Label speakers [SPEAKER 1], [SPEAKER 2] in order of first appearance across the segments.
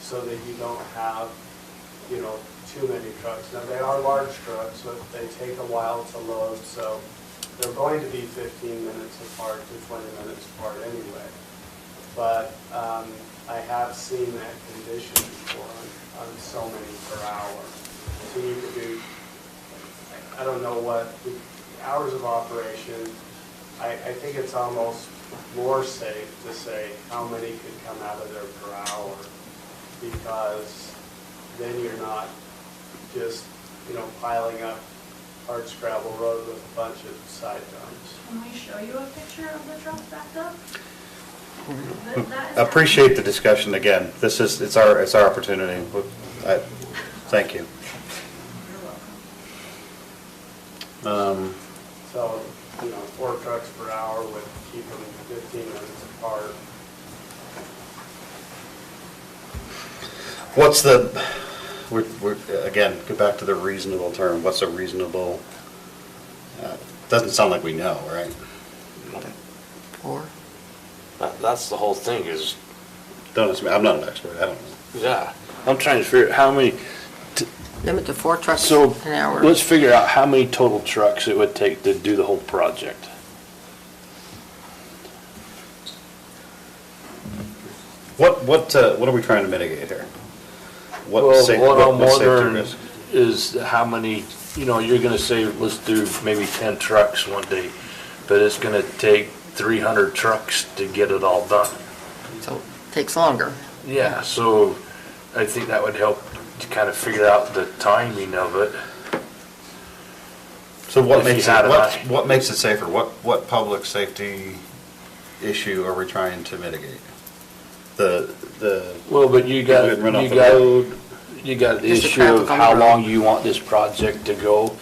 [SPEAKER 1] so that you don't have, you know, too many trucks. Now, they are large trucks, but they take a while to load, so they're going to be fifteen minutes apart to twenty minutes apart anyway. But, um, I have seen that condition before on, on so many per hour. So you could do I don't know what, the hours of operation, I, I think it's almost more safe to say how many could come out of there per hour, because then you're not just, you know, piling up hard scrabble road with a bunch of side dumps.
[SPEAKER 2] Can we show you a picture of the truck backed up?
[SPEAKER 3] Appreciate the discussion again. This is, it's our, it's our opportunity. I- Thank you. Um,
[SPEAKER 1] So, you know, four trucks per hour would keep them fifteen minutes apart.
[SPEAKER 3] What's the, we're, we're, again, go back to the reasonable term. What's a reasonable, uh, doesn't sound like we know, right?
[SPEAKER 4] Or?
[SPEAKER 5] That, that's the whole thing is,
[SPEAKER 3] Don't ask me, I'm not an expert, I don't know.
[SPEAKER 5] yeah, I'm trying to figure out how many,
[SPEAKER 4] Limit to four trucks
[SPEAKER 5] so,
[SPEAKER 4] an hour.
[SPEAKER 5] let's figure out how many total trucks it would take to do the whole project.
[SPEAKER 3] What, what, uh, what are we trying to mitigate here? What
[SPEAKER 5] Well,
[SPEAKER 3] sa-
[SPEAKER 5] what
[SPEAKER 3] what-
[SPEAKER 5] I'm
[SPEAKER 3] what safety
[SPEAKER 5] wondering
[SPEAKER 3] risk?
[SPEAKER 5] Is how many, you know, you're gonna say, let's do maybe ten trucks one day, but it's gonna take three hundred trucks to get it all done.
[SPEAKER 4] So, takes longer.
[SPEAKER 5] Yeah, so I think that would help to kind of figure out the timing of it.
[SPEAKER 3] So what
[SPEAKER 5] if you
[SPEAKER 3] makes
[SPEAKER 5] had
[SPEAKER 3] it,
[SPEAKER 5] an
[SPEAKER 3] what,
[SPEAKER 5] eye.
[SPEAKER 3] what makes it safer? What, what public safety issue are we trying to mitigate? The, the,
[SPEAKER 5] Well, but you got,
[SPEAKER 3] People get run off
[SPEAKER 5] you
[SPEAKER 3] the
[SPEAKER 5] got, you got the
[SPEAKER 4] Just the
[SPEAKER 5] issue of
[SPEAKER 4] traffic on
[SPEAKER 5] how
[SPEAKER 4] the road.
[SPEAKER 5] long you want this project to go.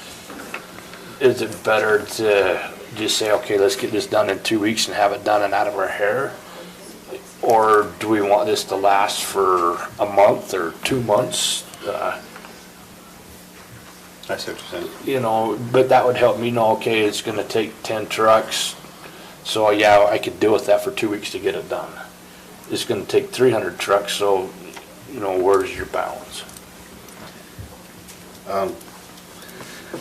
[SPEAKER 5] Is it better to just say, okay, let's get this done in two weeks and have it done and out of our hair? Or do we want this to last for a month or two months? Uh,
[SPEAKER 3] I see what you're saying.
[SPEAKER 5] You know, but that would help me know, okay, it's gonna take ten trucks. So yeah, I could deal with that for two weeks to get it done. It's gonna take three hundred trucks, so, you know, where's your balance?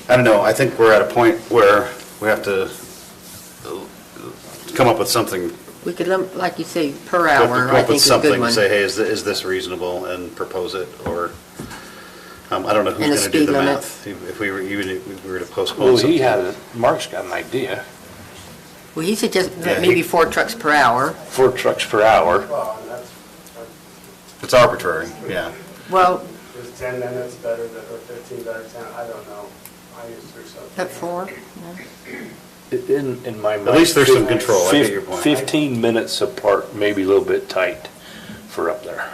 [SPEAKER 3] I don't know, I think we're at a point where we have to uh, come up with something.
[SPEAKER 4] We could limit, like you say, per
[SPEAKER 3] come up
[SPEAKER 4] hour, I
[SPEAKER 3] with
[SPEAKER 4] think is a
[SPEAKER 3] something
[SPEAKER 4] good
[SPEAKER 3] and
[SPEAKER 4] one.
[SPEAKER 3] Say, hey, is, thi- is this reasonable and propose it or, um, I don't know
[SPEAKER 4] And a
[SPEAKER 3] who's gonna do
[SPEAKER 4] speed
[SPEAKER 3] the
[SPEAKER 4] limit.
[SPEAKER 3] math. If if we were, even if we were to postpone
[SPEAKER 5] Well,
[SPEAKER 3] something.
[SPEAKER 5] he had, a- Mark's got an idea,
[SPEAKER 4] Well, he suggested
[SPEAKER 3] Yeah,
[SPEAKER 4] that maybe
[SPEAKER 3] he-
[SPEAKER 4] four trucks per hour.
[SPEAKER 5] four trucks per hour.
[SPEAKER 1] Well, and that's, that's-
[SPEAKER 3] It's arbitrary, yeah.
[SPEAKER 4] Well,
[SPEAKER 1] is ten minutes better than, or fifteen better than ten, I don't know. I used to do something.
[SPEAKER 4] at four,
[SPEAKER 5] In, in my mind.
[SPEAKER 3] least there's some
[SPEAKER 5] fif-
[SPEAKER 3] control, I get
[SPEAKER 5] fif-
[SPEAKER 3] your point.
[SPEAKER 5] Fifteen minutes apart, maybe a little bit tight for up there.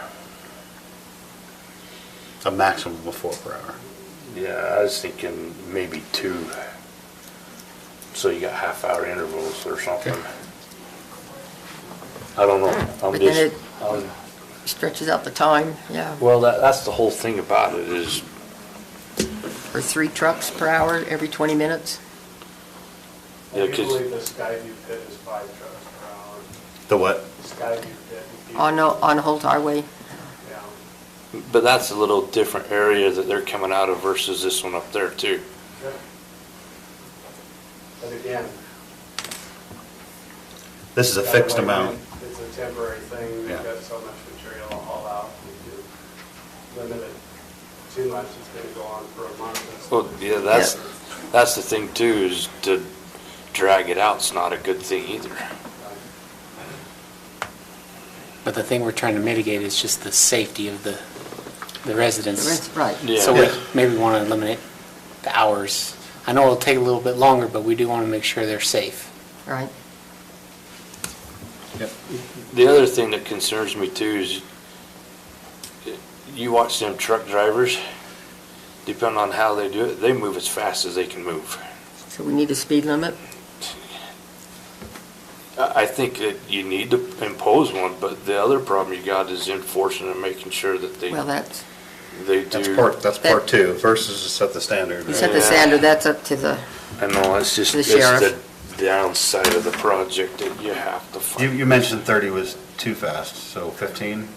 [SPEAKER 3] A maximum of four per hour.
[SPEAKER 5] Yeah, I was thinking maybe two. So you got half hour intervals or something. I don't know, I'm
[SPEAKER 4] But then
[SPEAKER 5] just,
[SPEAKER 4] it-
[SPEAKER 5] I'm-
[SPEAKER 4] stretches out the time, yeah.
[SPEAKER 5] well, that, that's the whole thing about it is,
[SPEAKER 4] Or three trucks per hour every 20 minutes.
[SPEAKER 5] Yeah,
[SPEAKER 1] I
[SPEAKER 5] 'cause-
[SPEAKER 1] usually the Skyview pit is five trucks per hour.
[SPEAKER 3] The what?
[SPEAKER 1] Skyview pit. would be-
[SPEAKER 4] On, o- on Holt Highway,
[SPEAKER 1] Yeah.
[SPEAKER 5] but that's a little different area that they're coming out of versus this one up there too.
[SPEAKER 1] Yep. But again.
[SPEAKER 3] This is a
[SPEAKER 1] that
[SPEAKER 3] fixed
[SPEAKER 1] way,
[SPEAKER 3] amount.
[SPEAKER 1] It's a temporary thing, we've
[SPEAKER 3] Yeah.
[SPEAKER 1] got so much material to haul out, we do limit it too much, it's gonna go on for a month.
[SPEAKER 5] Well, yeah, that's,
[SPEAKER 4] Yeah.
[SPEAKER 5] that's the thing too, is to drag it out's not a good thing either.
[SPEAKER 6] But the thing we're trying to mitigate is just the safety of the, the residents.
[SPEAKER 4] The res- right.
[SPEAKER 5] Yeah.
[SPEAKER 6] So we
[SPEAKER 3] Yeah.
[SPEAKER 6] maybe want to eliminate the hours. I know it'll take a little bit longer, but we do want to make sure they're safe.
[SPEAKER 4] right?
[SPEAKER 3] Yep.
[SPEAKER 5] The other thing that concerns me too is you watch them truck drivers, depending on how they do it, they move as fast as they can move.
[SPEAKER 4] So we need a speed limit.
[SPEAKER 5] I, I think that you need to impose one, but the other problem you got is enforcing and making sure that they,
[SPEAKER 4] Well, that's,
[SPEAKER 5] they do.
[SPEAKER 3] That's part, that's
[SPEAKER 4] That-
[SPEAKER 3] part two versus to set the standard.
[SPEAKER 4] you
[SPEAKER 3] right?
[SPEAKER 4] set the
[SPEAKER 5] Yeah.
[SPEAKER 4] standard, that's up to the,
[SPEAKER 5] I know, it's just,
[SPEAKER 4] The
[SPEAKER 5] it's the
[SPEAKER 4] sheriff.
[SPEAKER 5] downside of the project that you have to find.
[SPEAKER 3] You, you mentioned thirty was too fast, so fifteen?